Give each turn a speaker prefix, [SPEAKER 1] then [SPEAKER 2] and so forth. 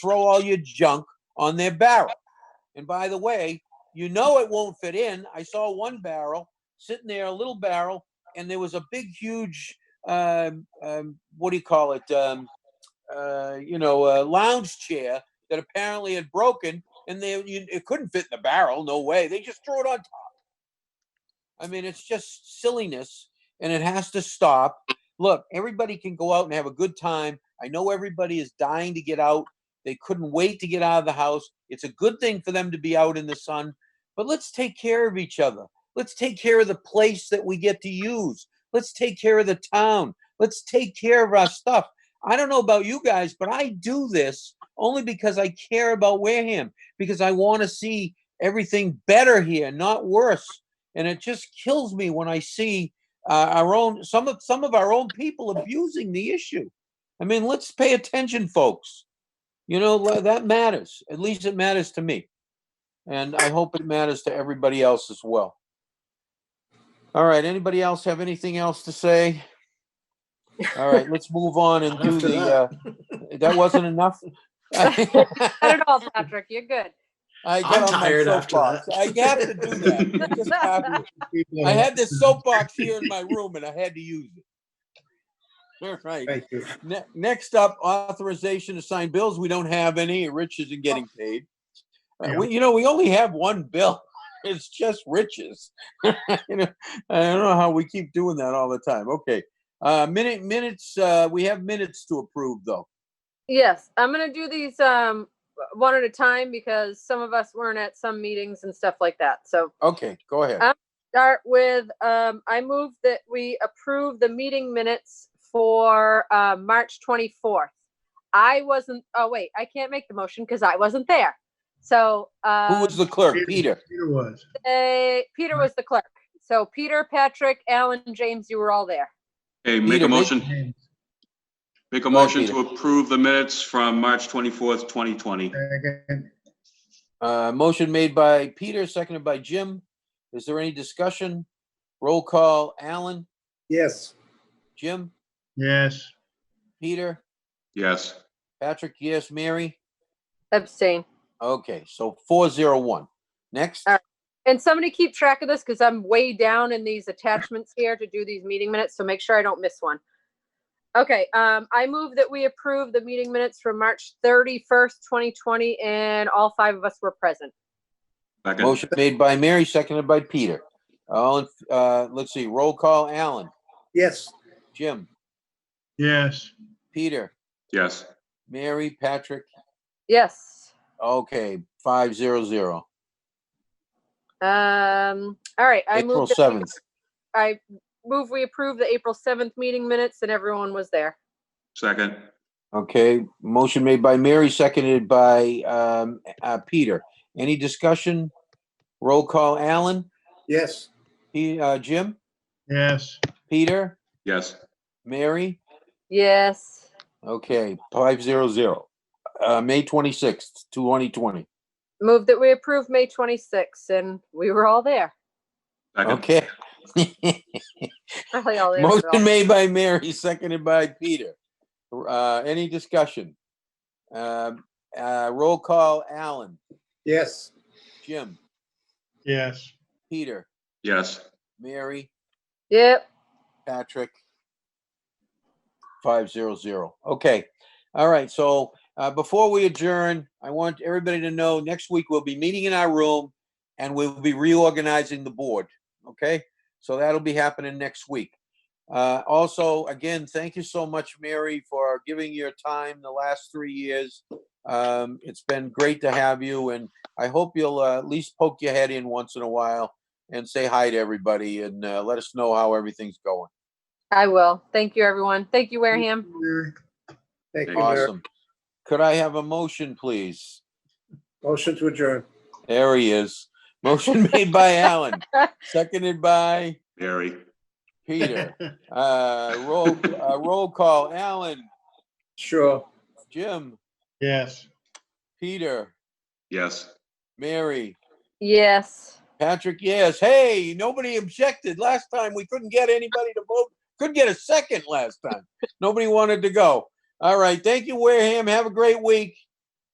[SPEAKER 1] throw all your junk on their barrel. And by the way, you know it won't fit in. I saw one barrel sitting there, a little barrel, and there was a big, huge, um, um, what do you call it? Um, uh, you know, uh, lounge chair that apparently had broken, and they you, it couldn't fit in the barrel. No way. They just threw it on top. I mean, it's just silliness, and it has to stop. Look, everybody can go out and have a good time. I know everybody is dying to get out. They couldn't wait to get out of the house. It's a good thing for them to be out in the sun, but let's take care of each other. Let's take care of the place that we get to use. Let's take care of the town. Let's take care of our stuff. I don't know about you guys, but I do this only because I care about Wareham, because I want to see everything better here, not worse. And it just kills me when I see uh, our own some of some of our own people abusing the issue. I mean, let's pay attention, folks. You know, le- that matters. At least it matters to me. And I hope it matters to everybody else as well. All right, anybody else have anything else to say? All right, let's move on and do
[SPEAKER 2] After
[SPEAKER 1] the, uh, that wasn't enough?
[SPEAKER 3] Not at all, Patrick. You're good.
[SPEAKER 1] I
[SPEAKER 2] I'm
[SPEAKER 1] got on my
[SPEAKER 2] tired after
[SPEAKER 1] soapbox.
[SPEAKER 2] that.
[SPEAKER 1] I have to do that. It just happened. I had this soapbox here in my room and I had to use it. All right.
[SPEAKER 2] Thank you.
[SPEAKER 1] Ne- Next up, authorization to sign bills. We don't have any. Rich isn't getting paid. Uh,
[SPEAKER 2] Yeah.
[SPEAKER 1] we- You know, we only have one bill. It's just riches. You know, I don't know how we keep doing that all the time. Okay. Uh, minute, minutes, uh, we have minutes to approve though.
[SPEAKER 3] Yes, I'm gonna do these um one at a time because some of us weren't at some meetings and stuff like that. So
[SPEAKER 1] Okay, go ahead.
[SPEAKER 3] Uh, start with, um, I move that we approve the meeting minutes for uh, March 24th. I wasn't, oh wait, I can't make the motion because I wasn't there. So,
[SPEAKER 1] Who
[SPEAKER 3] uh,
[SPEAKER 1] was the clerk? Peter.
[SPEAKER 2] Peter was.
[SPEAKER 3] Peter was the clerk. So Peter, Patrick, Alan, James, you were all there.
[SPEAKER 4] Okay, make
[SPEAKER 1] Peter,
[SPEAKER 4] a
[SPEAKER 1] make-
[SPEAKER 4] motion, make a
[SPEAKER 1] Go ahead,
[SPEAKER 4] motion
[SPEAKER 1] Peter.
[SPEAKER 4] to approve the minutes from March 24th, 2020.
[SPEAKER 2] Second.
[SPEAKER 1] Uh, motion made by Peter, seconded by Jim. Is there any discussion? Roll call, Alan,
[SPEAKER 2] Yes.
[SPEAKER 1] Jim,
[SPEAKER 2] Yes.
[SPEAKER 1] Peter,
[SPEAKER 4] Yes.
[SPEAKER 1] Patrick, yes, Mary?
[SPEAKER 3] Abstain.
[SPEAKER 1] Okay, so four zero one. Next,
[SPEAKER 3] All right. And somebody keep track of this because I'm way down in these attachments here to do these meeting minutes, so make sure I don't miss one. Okay, um, I move that we approve the meeting minutes from March thirty-first, twenty twenty, and all five of us were present.
[SPEAKER 4] Second.
[SPEAKER 1] motion made by Mary, seconded by Peter. All, in- uh, let's see, roll call, Alan,
[SPEAKER 2] Yes.
[SPEAKER 1] Jim,
[SPEAKER 2] Yes.
[SPEAKER 1] Peter,
[SPEAKER 4] Yes.
[SPEAKER 1] Mary, Patrick.
[SPEAKER 3] Yes.
[SPEAKER 1] Okay, five zero zero.
[SPEAKER 3] Um, all right, I
[SPEAKER 1] April
[SPEAKER 3] move, that-
[SPEAKER 1] seventh.
[SPEAKER 3] I move we approve the April seventh meeting minutes and everyone was there.
[SPEAKER 4] Second.
[SPEAKER 1] Okay, motion made by Mary, seconded by, um, uh, Peter. Any discussion? Roll call, Alan,
[SPEAKER 2] Yes.
[SPEAKER 1] He, uh, Jim,
[SPEAKER 2] Yes.
[SPEAKER 1] Peter,
[SPEAKER 4] Yes.
[SPEAKER 1] Mary?
[SPEAKER 3] Yes.
[SPEAKER 1] Okay, five zero zero. Uh, May twenty-sixth, twenty twenty.
[SPEAKER 3] Move that we approve May twenty-sixth and we were all there.
[SPEAKER 4] Second.
[SPEAKER 1] Okay.
[SPEAKER 3] Probably all there. but all-
[SPEAKER 1] Motion made by Mary, seconded by Peter. Uh, any discussion? Um, uh, roll call, Alan,
[SPEAKER 2] Yes.
[SPEAKER 1] Jim,
[SPEAKER 2] Yes.
[SPEAKER 1] Peter,
[SPEAKER 4] Yes.
[SPEAKER 1] Mary,
[SPEAKER 3] Yep.
[SPEAKER 1] Patrick. Five zero zero. Okay. All right. So uh, before we adjourn, I want everybody to know next week we'll be meeting in our room and we'll be reorganizing the board. Okay. So that'll be happening next week. Uh, also, again, thank you so much, Mary, for giving your time the last three years. Um, it's been great to have you, and I hope you'll uh, at least poke your head in once in a while and say hi to everybody and uh, let us know how everything's going.
[SPEAKER 3] I will. Thank you, everyone. Thank you, Wareham.
[SPEAKER 2] Thank you, Mayor.
[SPEAKER 1] Awesome. Could I have a motion, please?
[SPEAKER 2] Motion to adjourn.
[SPEAKER 1] There he is. Motion made by Alan, seconded by
[SPEAKER 4] Barry.
[SPEAKER 1] Peter. Uh, roll, uh, roll call, Alan,
[SPEAKER 2] Sure.
[SPEAKER 1] Jim,
[SPEAKER 2] Yes.
[SPEAKER 1] Peter,
[SPEAKER 4] Yes.
[SPEAKER 1] Mary,
[SPEAKER 3] Yes.
[SPEAKER 1] Patrick, yes. Hey, nobody objected. Last time we couldn't get anybody to vote. Couldn't get a second last time. Nobody wanted to go. All right. Thank you, Wareham. Have a great week.